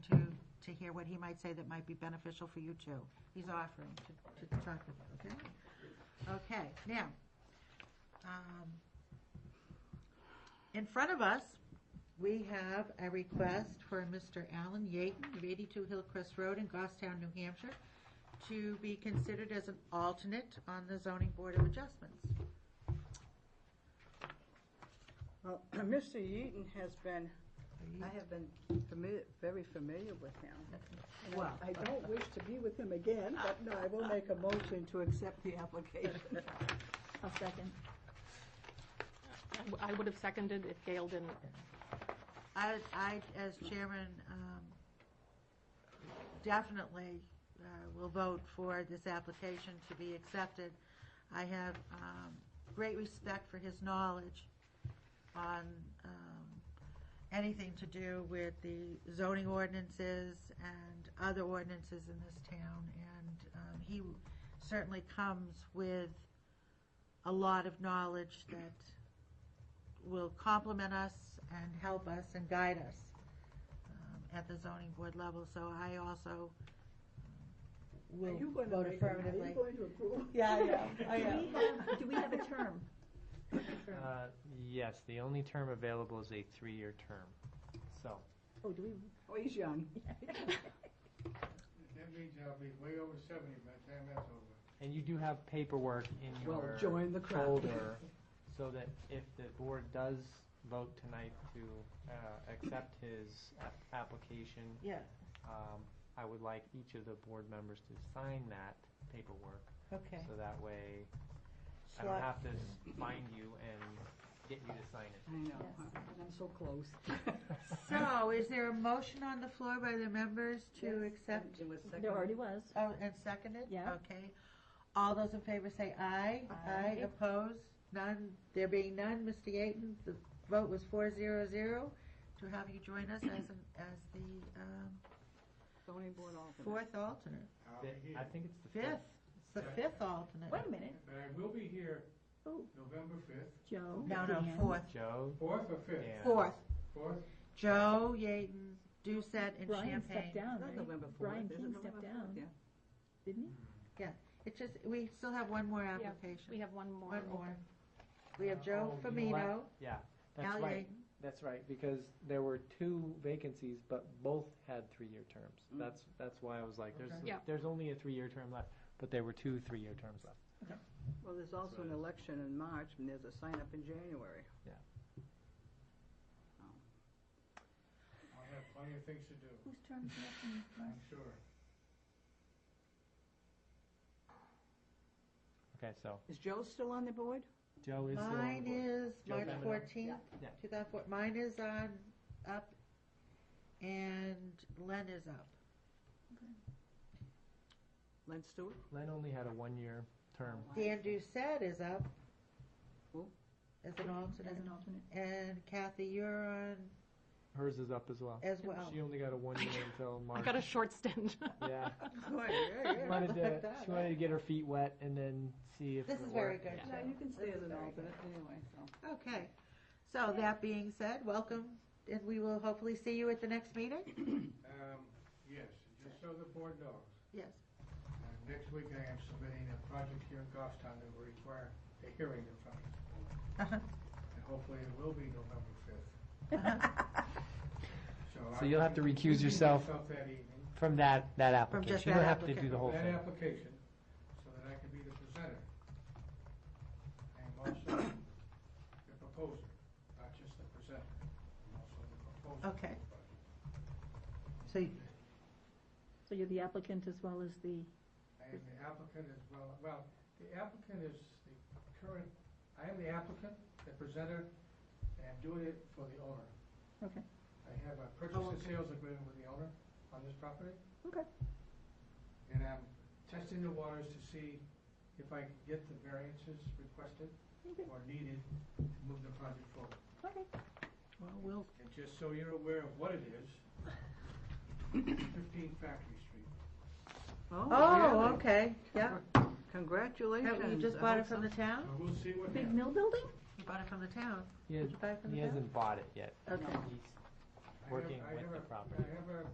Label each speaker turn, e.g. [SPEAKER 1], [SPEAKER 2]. [SPEAKER 1] hear what he might say that might be beneficial for you too. He's offering to, to talk with, okay? Okay, now, um, in front of us, we have a request for Mr. Alan Yaton of 82 Hillcrest Road in Goffstown, New Hampshire, to be considered as an alternate on the zoning board of adjustments.
[SPEAKER 2] Well, Mr. Yeaton has been, I have been familiar, very familiar with him. And I-
[SPEAKER 1] Well-
[SPEAKER 2] I don't wish to be with him again, but no, I will make a motion to accept the application.
[SPEAKER 3] I'll second.
[SPEAKER 4] I would have seconded if Gail didn't.
[SPEAKER 1] I, I, as chairman, um, definitely uh, will vote for this application to be accepted. I have um, great respect for his knowledge on um, anything to do with the zoning ordinances and other ordinances in this town. And um, he certainly comes with a lot of knowledge that will complement us and help us and guide us um, at the zoning board level, so I also
[SPEAKER 2] Are
[SPEAKER 1] will
[SPEAKER 2] you going to
[SPEAKER 1] vote
[SPEAKER 2] make, a- are
[SPEAKER 1] affirmatively.
[SPEAKER 2] you going to approve?
[SPEAKER 1] Yeah, I know, I
[SPEAKER 3] Do
[SPEAKER 1] know.
[SPEAKER 3] we have, do we have a term?
[SPEAKER 5] Uh, Yes, the only term available is a three-year term. So,
[SPEAKER 3] Oh, do we?
[SPEAKER 2] Oh, he's young.
[SPEAKER 6] That means I'll be way over seventy by the time that's over.
[SPEAKER 5] and you do have paperwork in
[SPEAKER 2] Well,
[SPEAKER 5] your
[SPEAKER 2] join the crowd.
[SPEAKER 5] folder, so that if the board does vote tonight to uh, accept his a- application,
[SPEAKER 1] Yeah,
[SPEAKER 5] um, I would like each of the board members to sign that paperwork,
[SPEAKER 1] okay.
[SPEAKER 5] so that way I
[SPEAKER 1] So
[SPEAKER 5] don't have to find you and get you to sign it.
[SPEAKER 2] I know,
[SPEAKER 3] Yes.
[SPEAKER 2] and I'm so close.
[SPEAKER 1] So, is there a motion on the floor by the members to accept,
[SPEAKER 2] It was second.
[SPEAKER 3] There already was.
[SPEAKER 1] oh, and seconded?
[SPEAKER 3] Yeah.
[SPEAKER 1] Okay. All those in favor say aye.
[SPEAKER 3] Aye.
[SPEAKER 1] Opposed? None, there being none, Mr. Yaten, the vote was four zero zero to have you join us as, an as the um,
[SPEAKER 2] Zoning board alternate.
[SPEAKER 1] fourth alternate.
[SPEAKER 6] I'll be
[SPEAKER 5] Fifth- I
[SPEAKER 6] here,
[SPEAKER 5] think it's the
[SPEAKER 1] Fifth, it's the fifth alternate.
[SPEAKER 3] Wait a minute,
[SPEAKER 6] but I will be here
[SPEAKER 3] Oh.
[SPEAKER 6] November fifth,
[SPEAKER 3] Joe.
[SPEAKER 1] No, no,
[SPEAKER 3] Dan.
[SPEAKER 1] fourth.
[SPEAKER 5] Joe,
[SPEAKER 6] fourth or fifth?
[SPEAKER 5] Dan.
[SPEAKER 1] Fourth.
[SPEAKER 6] Fourth,
[SPEAKER 1] Joe, Yaden, Doucette, and
[SPEAKER 3] Brian
[SPEAKER 1] Champagne.
[SPEAKER 3] stepped down,
[SPEAKER 2] Not
[SPEAKER 3] right?
[SPEAKER 2] November fourth.
[SPEAKER 3] Brian
[SPEAKER 2] is it
[SPEAKER 3] King
[SPEAKER 2] November
[SPEAKER 3] stepped
[SPEAKER 2] fourth?
[SPEAKER 3] down,
[SPEAKER 2] Yeah.
[SPEAKER 3] didn't
[SPEAKER 1] It's just, we still have one more
[SPEAKER 4] We
[SPEAKER 1] application.
[SPEAKER 4] have one more.
[SPEAKER 1] One more. We have
[SPEAKER 5] Uh,
[SPEAKER 1] Joe
[SPEAKER 5] oh, you know
[SPEAKER 1] Famino,
[SPEAKER 5] Yeah, that's
[SPEAKER 1] Al
[SPEAKER 5] right.
[SPEAKER 1] Yaden.
[SPEAKER 5] That's right, because there were two vacancies, but both had three-year terms.
[SPEAKER 2] Mm.
[SPEAKER 5] That's, that's why I was like, there's,
[SPEAKER 1] Okay.
[SPEAKER 4] Yeah.
[SPEAKER 5] there's only a three-year term left, but there were two three-year terms left.
[SPEAKER 2] Well, there's also an election in March, and there's a sign up in January. Oh.
[SPEAKER 6] I'll have plenty of things to do,
[SPEAKER 3] Whose term is left
[SPEAKER 6] I'm sure.
[SPEAKER 5] Okay, so
[SPEAKER 2] Is Joe still on the board?
[SPEAKER 5] Joe is still on the
[SPEAKER 1] Mine
[SPEAKER 5] board.
[SPEAKER 1] is
[SPEAKER 5] Joe
[SPEAKER 1] March
[SPEAKER 5] Famino.
[SPEAKER 1] fourteenth,
[SPEAKER 5] Yeah.
[SPEAKER 1] two thousand four, mine is on, up, and Len is up.
[SPEAKER 2] Len Stewart?
[SPEAKER 5] Len only had a one-year term.
[SPEAKER 1] Dan Doucette is up.
[SPEAKER 2] Who?
[SPEAKER 1] As an
[SPEAKER 3] As
[SPEAKER 1] alternate.
[SPEAKER 3] an alternate.
[SPEAKER 1] And Kathy, you're on
[SPEAKER 5] Hers is up as well.
[SPEAKER 1] as well.
[SPEAKER 5] She only got a one-year until
[SPEAKER 4] I
[SPEAKER 5] March.
[SPEAKER 4] got a short stint.
[SPEAKER 5] Yeah,
[SPEAKER 1] Boy, you're- you're
[SPEAKER 5] she wanted to,
[SPEAKER 1] like that.
[SPEAKER 5] she wanted to get her feet wet and then see if it
[SPEAKER 1] This is
[SPEAKER 5] worked.
[SPEAKER 1] very good.
[SPEAKER 4] Yeah.
[SPEAKER 2] Yeah,
[SPEAKER 1] Joe.
[SPEAKER 2] you can stay
[SPEAKER 1] This
[SPEAKER 2] as
[SPEAKER 1] is
[SPEAKER 2] an
[SPEAKER 1] very good.
[SPEAKER 2] alternate anyway, so.
[SPEAKER 1] Okay, so that being said, welcome, and we will hopefully see you at the next meeting?
[SPEAKER 6] Um, yes, just so the board knows,
[SPEAKER 1] Yes.
[SPEAKER 6] uh, next week I am submitting a project here in Goffstown that will require a hearing in front of the board. And hopefully it will be November fifth.
[SPEAKER 1] Uh-huh.
[SPEAKER 5] So
[SPEAKER 6] I-
[SPEAKER 5] you'll have to recuse
[SPEAKER 6] recusing
[SPEAKER 5] yourself
[SPEAKER 6] myself that evening
[SPEAKER 5] From that, that application.
[SPEAKER 1] just
[SPEAKER 5] You
[SPEAKER 1] that
[SPEAKER 5] don't have to do
[SPEAKER 1] applicant.
[SPEAKER 5] the whole
[SPEAKER 6] That
[SPEAKER 5] thing.
[SPEAKER 6] application, so that I can be the presenter. I'm also the proposer, not just the presenter, I'm also the proposer.
[SPEAKER 1] Okay. So,
[SPEAKER 3] So you're the applicant as well as the,
[SPEAKER 6] I am the applicant as well, well, the applicant is the current, I am the applicant, the presenter, and I'm doing it for the owner.
[SPEAKER 3] Okay.
[SPEAKER 6] I have a purchase
[SPEAKER 1] Oh,
[SPEAKER 6] and
[SPEAKER 1] okay.
[SPEAKER 6] sales agreement with the owner on this property.
[SPEAKER 3] Okay.
[SPEAKER 6] And I'm testing the waters to see if I can get the variances requested
[SPEAKER 3] Okay.
[SPEAKER 6] or needed to move the project forward.
[SPEAKER 3] okay.
[SPEAKER 1] well, we'll,
[SPEAKER 6] And just so you're aware of what it is, fifteen Factory Street.
[SPEAKER 1] oh,
[SPEAKER 2] really?
[SPEAKER 1] okay, yeah.
[SPEAKER 2] Congratulations.
[SPEAKER 1] You just
[SPEAKER 2] I
[SPEAKER 1] bought
[SPEAKER 2] hope
[SPEAKER 1] it from the
[SPEAKER 2] so.
[SPEAKER 1] town?
[SPEAKER 6] But we'll see what
[SPEAKER 3] Ah. Big
[SPEAKER 6] happens.
[SPEAKER 3] mill building?
[SPEAKER 1] You bought it from the town?
[SPEAKER 5] He
[SPEAKER 1] Did
[SPEAKER 5] has-
[SPEAKER 1] you buy it from
[SPEAKER 5] he
[SPEAKER 1] the town?
[SPEAKER 5] hasn't bought it yet.
[SPEAKER 1] Okay.
[SPEAKER 5] He's
[SPEAKER 6] I have-
[SPEAKER 5] working
[SPEAKER 6] I
[SPEAKER 5] with
[SPEAKER 6] have
[SPEAKER 5] the
[SPEAKER 6] a-
[SPEAKER 5] property.
[SPEAKER 6] I have a